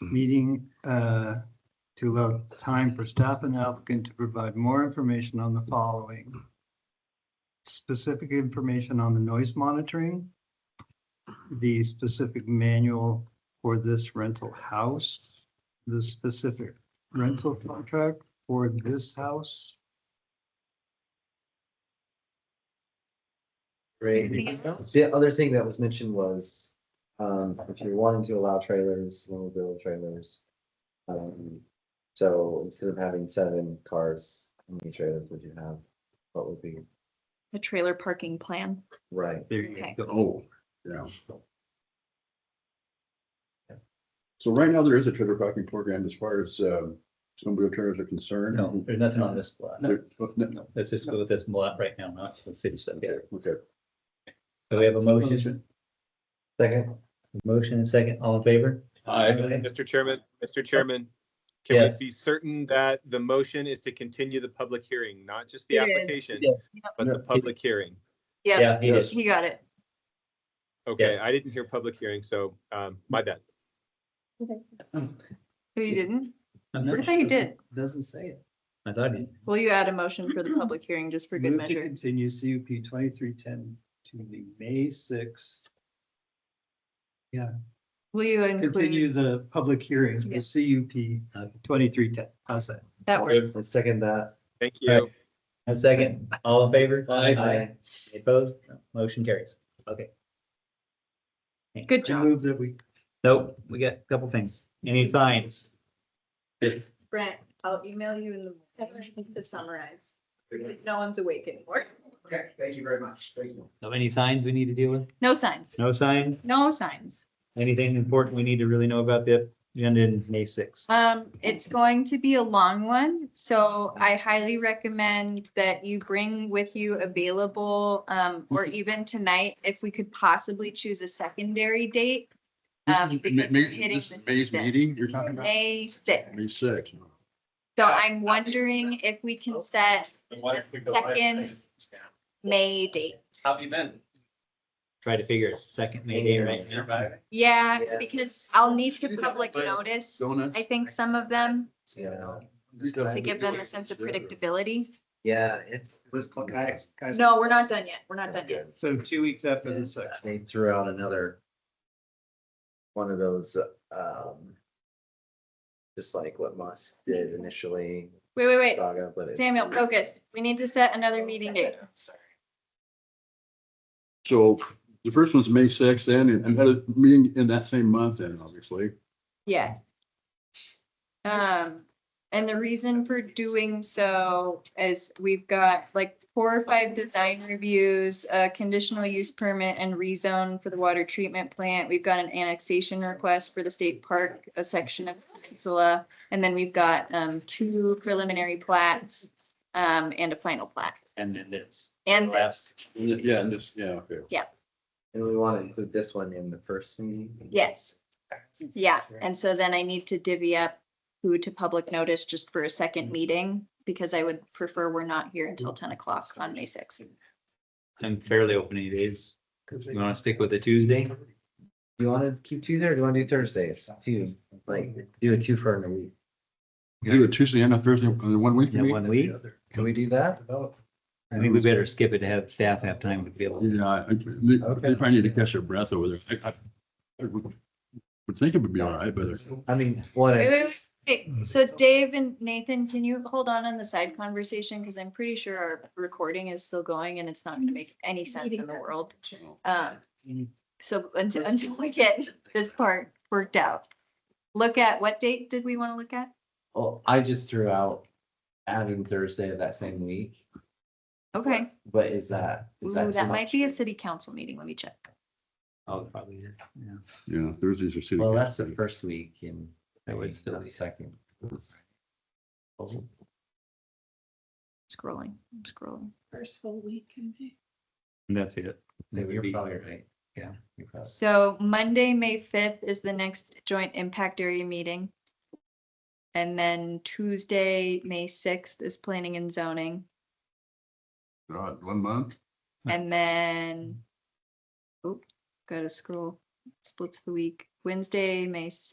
meeting uh, to allow time for staff and applicant to provide more information on the following. Specific information on the noise monitoring, the specific manual for this rental house, the specific rental contract for this house. Right. The other thing that was mentioned was, um, if you're wanting to allow trailers, snowmobile trailers. Um, so instead of having seven cars, how many trailers would you have? What would be A trailer parking plan. right? There you Okay. go. Oh, yeah. So right now, there is a trailer parking program as far as um, snowmobile trailers are concerned. No, there's nothing on this lot. There- oh, no, Um, no, Let's just go with this lot right now, not the city stuff. Yeah. Okay, So we have a motion, Second, motion and second, all in favor? Aye. Aye. Mr. Chairman, Mr. Chairman, can Yes. we be certain that the motion is to continue the public hearing, not just the It is. application, Yeah. but the public hearing? Yeah, he is. he got it. Okay, Yes. I didn't hear public hearing, so um, my bad. No, Oh, you didn't? I'm I not thought you did. Doesn't say it. sure. I thought you. Well, you add a motion for the public hearing just for good Mm-hmm. Move to measure. continue CUP twenty-three ten to the May sixth. Will you Continue include, the public hearings for Yeah. CUP uh, twenty-three ten. How's that? that works. I second that. Thank you. A second, all in favor? Aye. Any Opposed? No. Motion carries. Okay. Good I job, move that we Nope, we got a couple things. Any fines? Brent. I'll email you in the morning to summarize. No one's awake anymore. Okay, thank you very much. Thank you. So any signs we need to deal with? No signs, No sign? no signs. Anything important we need to really know about the agenda in May sixth? Um, it's going to be a long one, so I highly recommend that you bring with you available, um, or Mm-hmm. even tonight, if we could possibly choose a secondary date. Um, May- because we're May- hitting This the is May's season. meeting you're talking about? May May sixth. sixth. So I'm wondering if we can set a second May date. Try to figure a second maybe right now. Yeah, Yeah. because I'll need to public notice, Donuts. I think, some of them Yeah, to give them a sense of predictability. yeah, it's. Let's call guys. guys. No, we're not done yet. We're not done yet. So two weeks after the section. They threw out another. One of those, um. Just like what Musk did initially, Wait, wait, wait. Saga, but it's. Samuel, focus. We need to set another meeting date. So the first one's May sixth then, and another meeting in that same month then, obviously. Yes. Um, and the reason for doing so is we've got like four or five design reviews, a conditional use permit and rezone for the water treatment plant. We've got an annexation request for the state park, a section of peninsula. And then we've got, um, two preliminary plats, um, and a final plat. And then this. And this, Yeah, and just, yeah, okay. And we want to include this one in the first meeting. yes, yeah. And so then I need to divvy up who to public notice just for a Mm-hmm. second meeting, because I would prefer we're not here until ten o'clock on May sixth. I'm fairly open any days. You wanna stick with the Tuesday? Do you want to keep Tuesday or do you want to do Thursdays? Two, like, do a two for in a week. Do it Tuesday and a Thursday, uh, one week. Yeah, one week. Can we do that? I think we better skip it to have staff have time to be able. Yeah, I- I- they they probably need to catch their breath over there. I- I I Would would think it would be all right, but it's- I mean, what? Wait, if- wait, wait, Mm-hmm. wait. So Dave and Nathan, can you hold on on the side conversation? Because I'm pretty sure our recording is still going and it's not gonna make any sense in the world. Um, so until, until we get this part worked out. Look at, what date did we want to look at? Well, oh, I just threw out adding Thursday of that same week, Okay, but is that? is Ooh, too that might much? be a city council meeting. Let me check. Oh, probably, yeah. yeah. yeah, Thursdays are. city Well, that's council. the first week and That would still not be- the second. Oh, Scrolling, I'm scrolling. first full week in May. And That's it. That would You're be- probably right. Yeah. you're probably- So Monday, May fifth is the next joint impact area meeting. And then Tuesday, May sixth is planning and zoning, God, one month? and then. Oh, gotta scroll, splits the week, Wednesday, May